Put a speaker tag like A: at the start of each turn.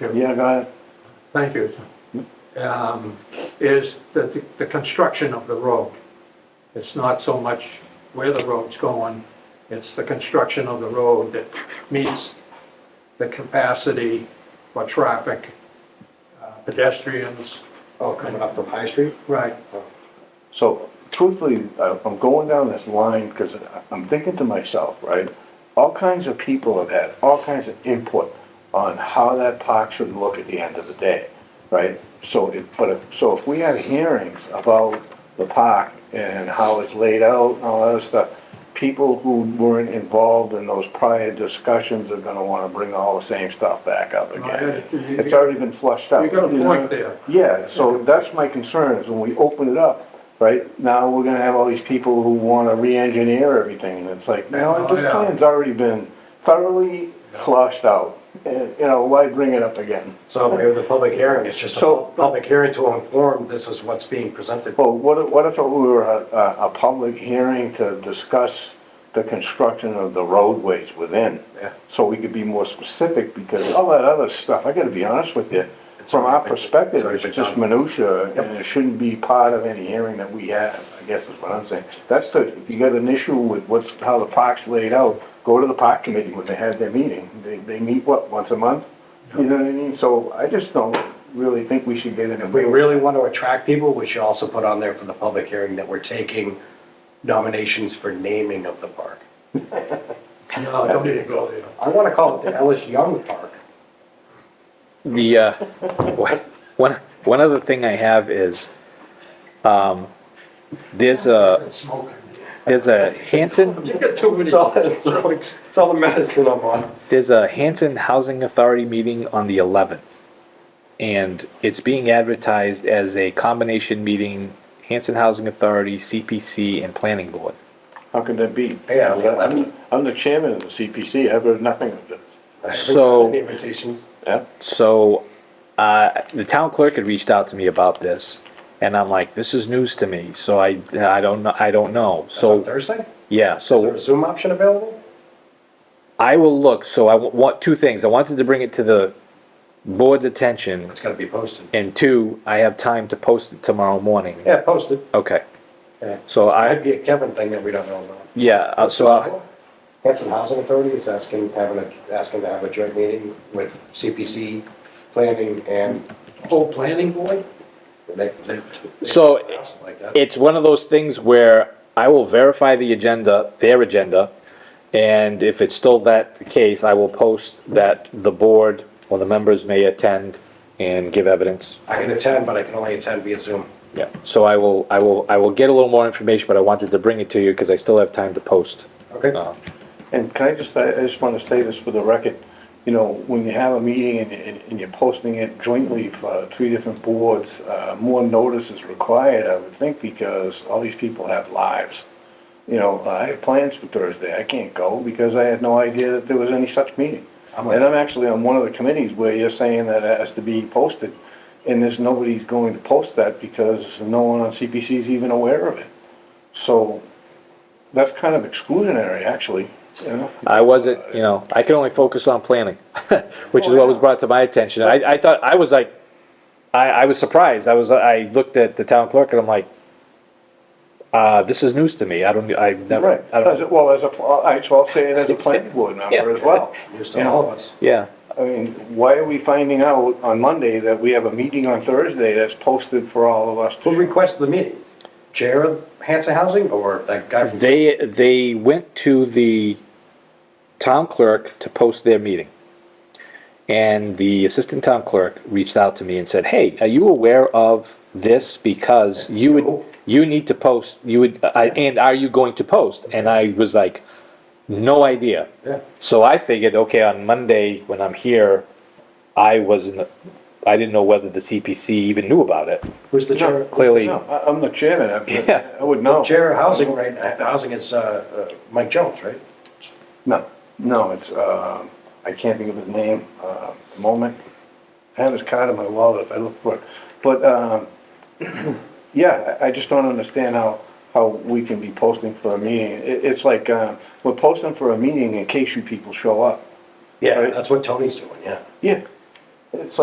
A: Yeah, go ahead.
B: Thank you. Um, Is the, the construction of the road. It's not so much where the road's going, it's the construction of the road that meets the capacity for traffic, uh, pedestrians.
C: Oh, coming up from High Street?
B: Right.
A: So truthfully, I- I'm going down this line because I'm thinking to myself, right? All kinds of people have had all kinds of input on how that park should look at the end of the day, right? So if, but if, so if we have hearings about the park and how it's laid out and all that stuff, people who weren't involved in those prior discussions are gonna wanna bring all the same stuff back up again.
B: yeah, you-
A: It's already been flushed out.
B: You got a
A: know?
B: point there.
A: Yeah, so that's my concern, is when we open it up, right, now we're gonna have all these people who wanna re-engineer everything, and it's like, no, this
B: Yeah.
A: plan's already been thoroughly flushed out, and, you know, why bring it up again?
C: So we have the public hearing, it's just a
A: So-
C: public hearing to inform this is what's being presented.
A: Well, what if, what if it were a, a, a public hearing to discuss the construction of the roadways within?
C: Yeah.
A: So we could be more specific, because all that other stuff, I gotta be honest with you, from our
C: already been- it's
A: perspective,
C: already
A: it's
C: been
A: just
C: done.
A: minutia, and it shouldn't be part of any hearing that we have, I guess is what I'm saying. That's the, if you got an issue with what's, how the park's laid out, go to the park committee when they have their meeting, they, they meet, what, once a month? You know what I mean, so I just don't really think we should get in the
C: If we really want to attract people, we should also put on there for the public hearing that we're taking nominations for naming of the park.
B: No, don't need to go there.
C: I want to call it the Ellis Young Park.
D: The, uh, one, one other thing I have is, um, there's a,
B: It's smoking.
D: there's a Hanson,
B: You got too many.
C: It's all, it's all- it's all the medicine I'm on.
D: there's a Hanson Housing Authority meeting on the eleventh. And it's being advertised as a combination meeting, Hanson Housing Authority, CPC, and Planning Board.
A: How can that be?
C: Yeah, I mean,
A: I'm, I'm the chairman of the CPC, I've heard nothing of this.
C: I haven't
D: So-
C: gotten any Invitations.
A: Yeah,
D: So, uh, the town clerk had reached out to me about this, and I'm like, this is news to me, so I, I don't know, I don't know,
C: That's on
D: so,
C: Thursday?
D: yeah, so.
C: Is there a Zoom option available?
D: I will look, so I wa- want, two things, I wanted to bring it to the board's attention,
C: It's got to be posted.
D: and two, I have time to post it tomorrow morning.
C: Yeah, posted.
D: Okay,
C: Yeah.
D: So I-
C: Might be a Kevin thing that we don't know about.
D: yeah, uh, so, I'll-
C: Hanson Housing Authority is asking, having a, asking to have a joint meeting with CPC planning and
B: Whole planning board?
C: they, they. they-
D: So-
C: Like that.
D: it's one of those things where I will verify the agenda, their agenda, and if it's still that the case, I will post that the board or the members may attend and give evidence.
C: I can attend, but I can only attend via Zoom.
D: Yeah, so I will, I will, I will get a little more information, but I wanted to bring it to you, because I still have time to post.
C: Okay.
D: Uh,
A: and can I just, I I just wanna say this for the record, you know, when you have a meeting and, and- and you're posting it jointly for three different boards, uh, more notice is required, I would think, because all these people have lives. You know, I have plans for Thursday, I can't go because I had no idea that there was any such meeting.
C: I'm
A: And
C: like-
A: I'm actually on one of the committees where you're saying that it has to be posted, and there's nobody's going to post that because no one on CPC is even aware of it. So, that's kind of exclusionary, actually, you know?
D: I wasn't, you know, I could only focus on planning, which is what was brought to my attention. I, I thought, I was like, I, I was surprised. I was, I looked at the town clerk and I'm like, uh, this is news to me. I don't, I
A: Right,
D: never, I
A: as, a-
D: don't.
A: well, as a, pl- I, so I'll say it as a planning board member as well.
C: News
A: You
C: to all
A: know,
C: of us.
D: Yeah,
A: I mean, why are we finding out on Monday that we have a meeting on Thursday that's posted for all of us? to-
C: Who requested the meeting? Chair of Hanson Housing or that guy from?
D: they, they went to the town clerk to post their meeting. And the assistant town clerk reached out to me and said, hey, are you aware of this? Because you would, you need to post, you would, I- and are you going to post? And I was like, no idea.
C: Yeah.
D: So I figured, okay, on Monday when I'm here, I wasn't, I didn't know whether the CPC even knew about it.
C: Who's the chair?
D: Clearly,
A: No, I, I'm the chairman,
D: Yeah.
A: I, I would know.
C: Chair of Housing, right, uh, Housing is, uh, uh, Mike Jones, right?
A: No, no, it's, um I can't think of his name, uh, at the moment. I have his card in my wallet if I look for it. But, um, yeah, I I just don't understand how, how we can be posting for a meeting. It, it's like, uh, we're posting for a meeting in case you people show up.
C: Yeah.
A: Right.
C: That's what Tony's doing, yeah.
A: Yeah. it's like.